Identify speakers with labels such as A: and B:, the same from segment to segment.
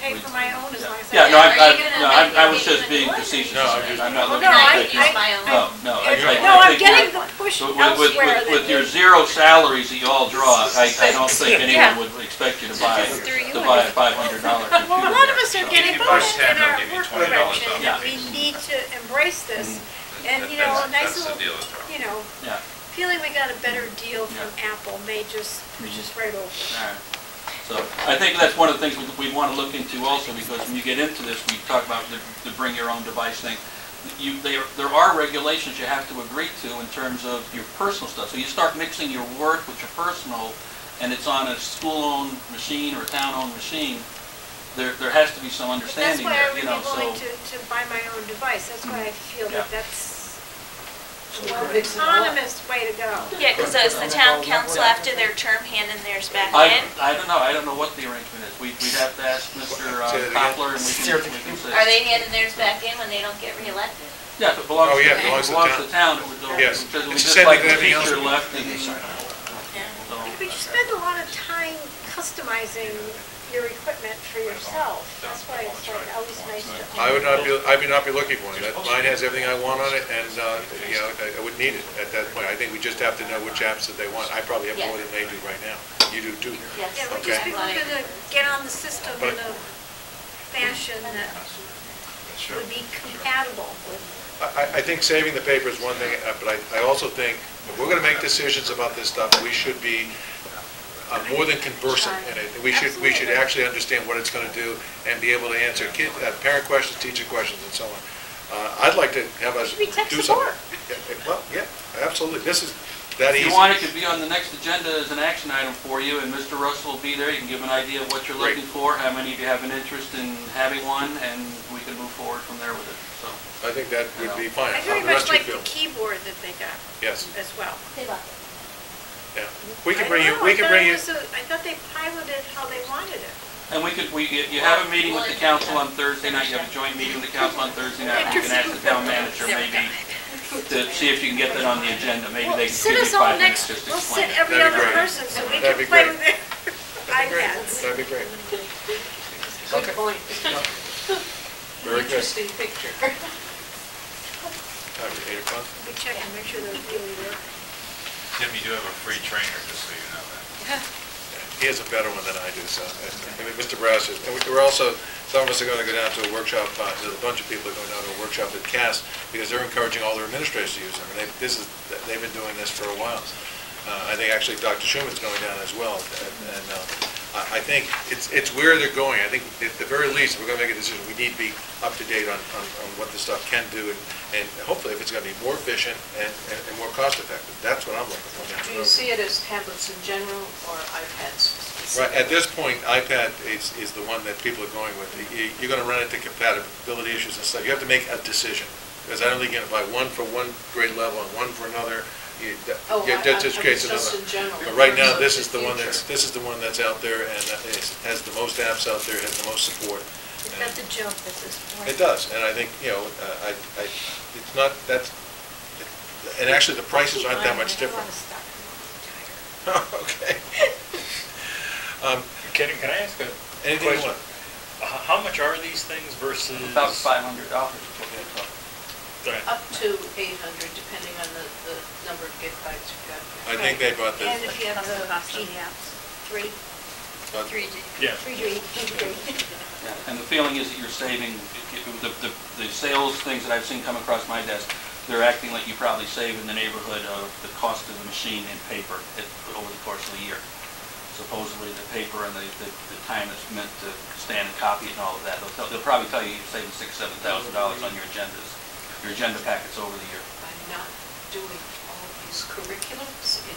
A: pay for my own as long as I.
B: Yeah, no, I,
C: Are you
B: I,
C: gonna
B: no, I,
C: make
B: I
C: your
B: was just
C: vision
B: being
C: work?
B: facetious,
D: No, I'm just-
B: I'm not
A: Well,
B: looking
A: no,
B: at
A: I-
B: it.
A: I-
C: use my own.
B: No, no, I, I I
D: It's-
B: think.
A: No, I'm
B: you're-
A: getting the push
B: With, with, with-
A: elsewhere
B: with,
A: than
B: with your
A: this.
B: zero salaries that you all draw, I, I don't think
A: Yeah.
B: anyone would expect you to buy,
C: Just threw you
B: to buy a
C: in.
B: five hundred dollar computer.
A: Well, a lot of us
B: so.
A: are getting
D: If you buy
A: pushed in
D: ten, they'll
A: our
D: give you
A: work
D: $20
A: direction,
D: off. Mm-hmm.
A: and we need to embrace this. And, you know, a
D: That's-
A: nice
D: that's the
A: little,
D: deal with Apple.
A: you know,
B: Yeah,
A: feeling we got a better deal from Apple may just push
B: Mm-hmm.
A: us right over.
B: all right. So I think that's one of the things we, we want to look into also, because when you get into this, we talk about the, the bring your own device thing. You, there, there are regulations you have to agree to in terms of your personal stuff. So you start mixing your work with your personal, and it's on a school-owned machine or a town-owned machine, there, there has to be some
A: But That's
B: understanding
A: why I
B: there,
A: would
B: you
A: be
B: know, so.
A: willing to, to buy my own device, that's why I feel
B: Yeah.
A: that that's a
E: So it
A: more
E: breaks it all.
A: autonomous way to go.
C: Yeah, because it's the town council after their term handing theirs back
B: I,
C: in.
B: I don't know, I don't know what the arrangement is. We, we'd have to ask Mr. uh,
E: Say it again.
B: Poplar and we can, we can say.
C: Are they handing theirs back in when they don't get reelected?
B: Yeah, if it belongs
E: Oh,
B: to, it
E: yeah, it belongs to
B: belongs to
E: town.
B: the town, it would go,
E: Yes.
B: because we
E: It's
B: just
E: the same
B: like the
E: with everything else.
B: teacher left and, so.
A: But you spend a lot of time customizing your equipment for yourself, that's why it's like always nice to.
E: I would not be, I would not be looking for one. That mine has everything I want on it, and, uh, you know, I- I wouldn't need it at that point. I think we just have to know which apps that they want. I probably have more than they do right now. You do too.
C: Yes.
A: Yeah, we just
E: Okay.
A: people gonna get on the system in a fashion that
D: Sure.
A: would be compatible with.
E: I, I- I think saving the paper is one thing, uh, but I, I also think, if we're gonna make decisions about this stuff, we should be uh, more than conversant in it. We should, we should actually understand what it's gonna do and be able to answer kid, uh, parent questions, teacher questions, and so on. Uh, I'd like to have us
A: Should be
E: do
A: tech
E: something.
A: support.
E: Yeah, yeah, Well, yeah, absolutely. This is that
B: If
E: easy.
B: you want, it could be on the next agenda as an action item for you, and Mr. Russell will be there. You can give an idea of what you're
E: Great.
B: looking for, how many of you have an interest in having one, and we can move forward from there with it, so.
E: I think that would be fine.
A: I very
E: How the
A: much
E: rest you
A: like the
E: feel.
A: keyboard that they got
E: Yes,
A: as well.
C: They love
E: yeah. We
A: I
E: can bring you,
A: don't know,
E: we
A: I
E: can
A: thought it
E: bring you,
A: was a- I thought they piloted how they wanted it.
B: And we could, we, you you have a meeting with the council on Thursday night, you have a joint meeting with the council on Thursday night, you can ask the town manager maybe to see if you can get that on the agenda, maybe
A: Well,
B: they can
A: sit
B: give you
A: us all
B: five minutes
A: next,
B: just to
A: we'll
B: explain
A: sit
B: it.
A: every
E: That'd be
A: other
E: great.
A: person so we
E: That'd
A: can
E: be
A: play
E: great.
A: with their iPads.
E: that'd be great.
F: Good point.
E: Very good.
F: Interesting picture.
E: All right, Eight o'clock.
A: We check and make sure those really work.
D: Tim, you do have a free trainer, just so you know that.
E: He has a better one than I do, so, I mean, Mr. Brass is, and we- we're also, some of us are going to go down to a workshop, uh, there's a bunch of people are going down to a workshop at CAS, because they're encouraging all their administrators to use them, and they, this is, they've been doing this for a while. Uh, I think actually Dr. Schuman's going down as well, and, and, uh, I, I think it's, it's where they're going. I think at the very least, if we're going to make a decision, we need to be up to date on, on, on what this stuff can do, and, and hopefully if it's going to be more efficient and, and and more cost effective, that's what I'm looking for down the road.
F: Do you see it as tablets in general or iPads?
E: Right, at this point, iPad is, is the one that people are going with. You- You're gonna run into compatibility issues and stuff. You have to make a decision. Because I don't think you can buy one for one grade level and one for another. You- that-
F: Oh,
E: yeah,
F: I-
E: that
F: I-
E: just
F: I
E: creates
F: mean, just
E: another-
F: in general,
E: But
F: in
E: right now,
F: terms of
E: this
F: the
E: is the one that's,
F: future.
E: this is the one that's out there and that is- has the most apps out there, has the most support.
A: It's got
E: And
A: the jump at this point.
E: It does, and I think, you know, uh, I, I, it's not, that's, and actually, the prices aren't that much
A: I don't wanna
E: different.
A: stop. I'm tired.
E: Okay. Um,
G: Can, can I ask a
E: Anything you
G: question?
E: want.
G: H- How much are these things versus?
B: About five hundred dollars. is what they cost.
G: Right.
F: Up to 800, depending on the, the number of gigabytes you've got.
E: I think they bought the.
A: And if you have the G apps, three,
E: bought-
C: Three G.
G: Yeah.
A: three, three, three.
B: Yeah, And the feeling is that you're saving, the, the, the sales things that I've seen come across my desk, they're acting like you probably save in the neighborhood of the cost of the machine and paper at- over the course of the year. Supposedly the paper and the, the the time that's meant to stand and copy it and all of that. They'll, tell- they'll probably tell you you're saving six, seven thousand dollars on your agendas, your agenda packets over the year.
F: I'm not doing all of these curriculums in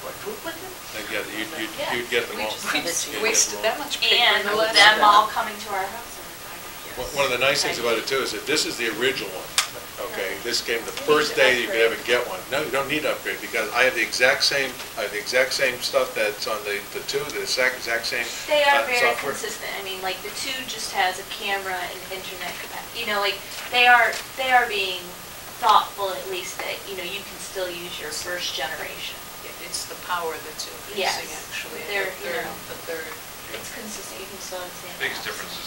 F: quadruplet.
E: Like, Yeah, you'd, you'd- you'd get them all.
F: We just
E: You'd get
F: wasted
E: them
F: that much paper. in
C: And
F: the
C: with
F: last-
C: them all coming to our house.
E: all. One- One of the nice things about it too is that this is the original one, okay? This came the first day you could ever get one. No, you don't need to upgrade because I have the exact same, I have the exact same stuff that's on the, the two, the exact, exact same.
C: They are
E: uh,
C: very
E: software.
C: consistent. I mean, like, the two just has a camera and internet capacity. You know, like, they are, they are being thoughtful at least that, you know, you can still use your first generation.
F: It's the power that's
C: Yes.
F: increasing, actually.
C: They're, you
F: The third-
C: know.
F: The third.
C: It's consistent. You can still understand.
D: Biggest difference is